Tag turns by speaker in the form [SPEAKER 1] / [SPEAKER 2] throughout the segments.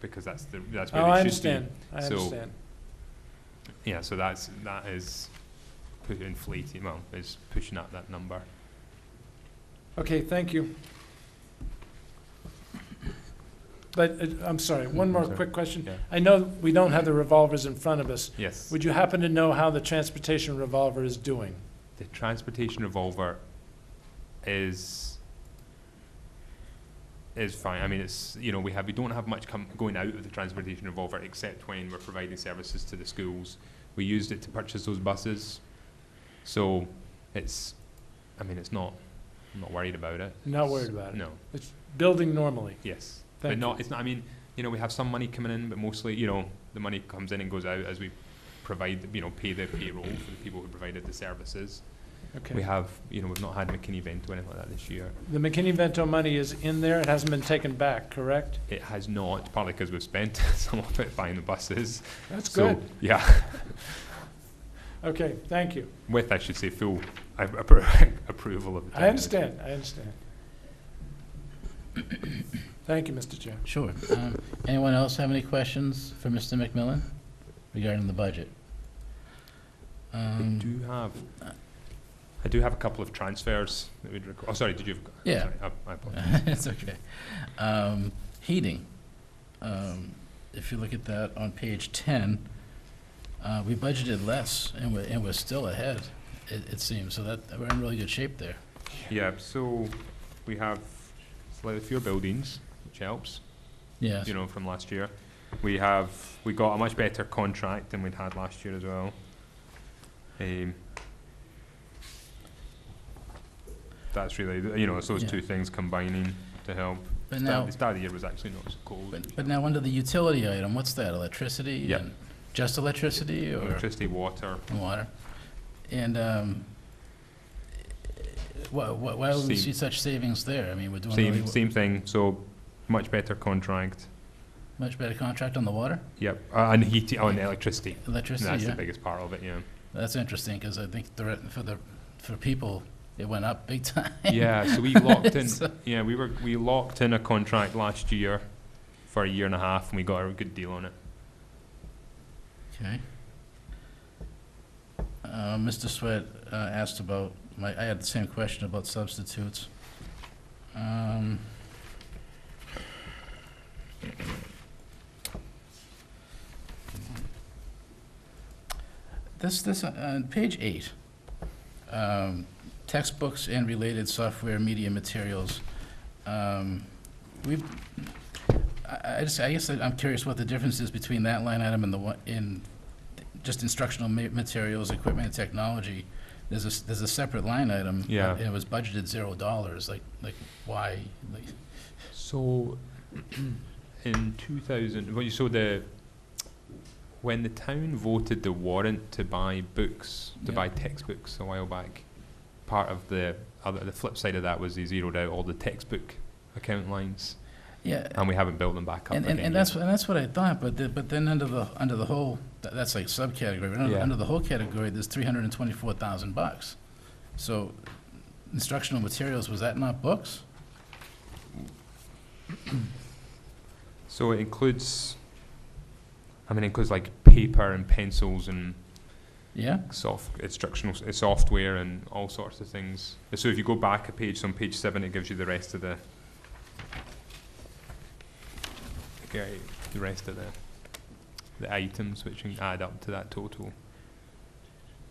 [SPEAKER 1] because that's the, that's
[SPEAKER 2] Oh,
[SPEAKER 1] where
[SPEAKER 2] I
[SPEAKER 1] they should be.
[SPEAKER 2] understand, I
[SPEAKER 1] So-
[SPEAKER 2] understand.
[SPEAKER 1] Yeah, so that's, that is pu- inflating, well, is pushing up that number.
[SPEAKER 2] Okay, thank you. But, uh, I'm sorry, one more
[SPEAKER 1] Mm-hmm. Sorry.
[SPEAKER 2] quick question.
[SPEAKER 1] Yeah.
[SPEAKER 2] I know we don't have the revolvers in front of us.
[SPEAKER 1] Yes.
[SPEAKER 2] Would you happen to know how the transportation revolver is doing?
[SPEAKER 1] The transportation revolver is is fine. I mean, it's you know we have we don't have much com- going out of the transportation revolver except when we're providing services to the schools. We used it to purchase those buses, so it's. I mean, it's not. I'm not worried about it.
[SPEAKER 2] Not worried about it?
[SPEAKER 1] No.
[SPEAKER 2] It's building normally?
[SPEAKER 1] Yes. but
[SPEAKER 2] Thank
[SPEAKER 1] not.
[SPEAKER 2] you.
[SPEAKER 1] It's not. I mean, you know, we have some money coming in, but mostly, you know, the money comes in and goes out as we provide, you know, pay the payroll for the people who provided the services. We
[SPEAKER 2] Okay.
[SPEAKER 1] have, you know, we've not had a McKinney event or anything like that this year.
[SPEAKER 2] The McKinney-Vento money is in there, it hasn't been taken back, correct?
[SPEAKER 1] It has not, partly because we've spent some of it buying the buses.
[SPEAKER 2] That's
[SPEAKER 1] so
[SPEAKER 2] good.
[SPEAKER 1] yeah,
[SPEAKER 2] Okay, thank you.
[SPEAKER 1] with I should say full a- appro- approval of. the
[SPEAKER 2] I understand, I understand. Thank you, Mr. Chair.
[SPEAKER 3] Sure. Um, Anyone else have any questions for Mr. McMillan regarding the budget?
[SPEAKER 1] I
[SPEAKER 3] Um,
[SPEAKER 1] do have. I do have a couple of transfers that we'd record. Oh, sorry, did you? Have,
[SPEAKER 3] Yeah.
[SPEAKER 1] Sorry, I, I apologize.
[SPEAKER 3] It's okay. Um, Heating. Um, If you look at that on page 10, uh, we budgeted less, and we're, and we're still ahead, it it seems, so that, we're in really good shape there.
[SPEAKER 1] Yeah, so we have slightly fewer buildings, which helps,
[SPEAKER 3] Yes.
[SPEAKER 1] you know, from last year. We have, we got a much better contract than we'd had last year as well. Um, that's really, the- you know, it's those
[SPEAKER 3] Yeah.
[SPEAKER 1] two things combining to help.
[SPEAKER 3] But
[SPEAKER 1] Start,
[SPEAKER 3] now,
[SPEAKER 1] the start of the year was actually not so cold.
[SPEAKER 3] but but now under the utility item, what's that, electricity?
[SPEAKER 1] Yeah.
[SPEAKER 3] and- Just electricity, or?
[SPEAKER 1] Electricity, water,
[SPEAKER 3] and water. And um, why, why why would we
[SPEAKER 1] Same.
[SPEAKER 3] see such savings there? I mean, we're doing really
[SPEAKER 1] same, same thing, so much better contract.
[SPEAKER 3] much better contract on the water,
[SPEAKER 1] Yep, uh, and heating, oh, and electricity.
[SPEAKER 3] electricity.
[SPEAKER 1] That's
[SPEAKER 3] yeah,
[SPEAKER 1] the biggest part of it, yeah.
[SPEAKER 3] that's interesting because I think the, re- for the for people it went up big time.
[SPEAKER 1] Yeah, so we locked in.
[SPEAKER 3] So-
[SPEAKER 1] yeah, we were we locked in a contract last year for a year and a half, and we got a good deal on it.
[SPEAKER 3] Okay. Uh, Mr. Sweat uh, asked about my. I had the same question about substitutes. Um, This, this, uh, on page eight, um, textbooks and related software, media materials. Um, We've, I, I just, I guess I'm curious what the difference is between that line item and the one, in just instructional ma- materials, equipment, and technology. There's a, s- there's a separate line item.
[SPEAKER 1] Yeah.
[SPEAKER 3] And it was budgeted zero dollars, like, like, why? Like,
[SPEAKER 1] So, in two thousand, well, you saw the when the town voted the warrant to buy books, to
[SPEAKER 3] Yeah.
[SPEAKER 1] buy textbooks a while back. Part of the other, the flip side of that was they zeroed out all the textbook account lines,
[SPEAKER 3] Yeah,
[SPEAKER 1] and we haven't built them back up.
[SPEAKER 3] And, and,
[SPEAKER 1] again
[SPEAKER 3] and
[SPEAKER 1] yet.
[SPEAKER 3] that's, and that's what I thought, but, the- but then under the, under the whole, tha- that's like subcategory, but under,
[SPEAKER 1] Yeah.
[SPEAKER 3] under the whole category, there's three hundred and twenty-four thousand bucks. So instructional materials, was that not books?
[SPEAKER 1] So it includes. I mean, it includes like paper and pencils and
[SPEAKER 3] Yeah?
[SPEAKER 1] soft instructional s- uh, software and all sorts of things. So if you go back a page, so on page seven, it gives you the rest of the okay, the rest of the the items which can add up to that total.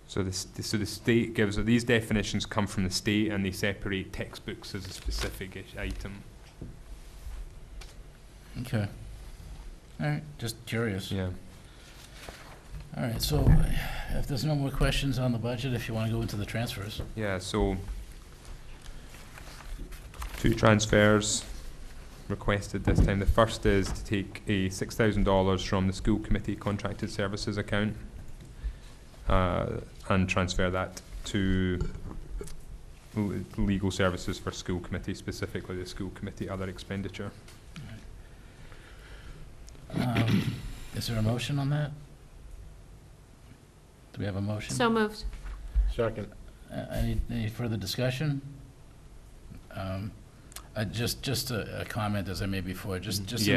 [SPEAKER 1] So the st- so the state gives these definitions come from the state and they separate textbooks as a specific ish item.
[SPEAKER 3] Okay. All right, just curious.
[SPEAKER 1] Yeah.
[SPEAKER 3] All right, so if there's no more questions on the budget, if you want to go into the transfers.
[SPEAKER 1] Yeah, so two transfers requested this time. The first is to take a six thousand dollars from the school committee contracted services account uh, and transfer that to l- legal services for school committee, specifically the school committee other expenditure.
[SPEAKER 3] Um, Is there a motion on that? Do we have a motion?
[SPEAKER 4] So moved.
[SPEAKER 5] Second.
[SPEAKER 3] Uh, Any, any further discussion? Um, uh, Just, just a a comment, as I made before, just, just in
[SPEAKER 1] Yeah.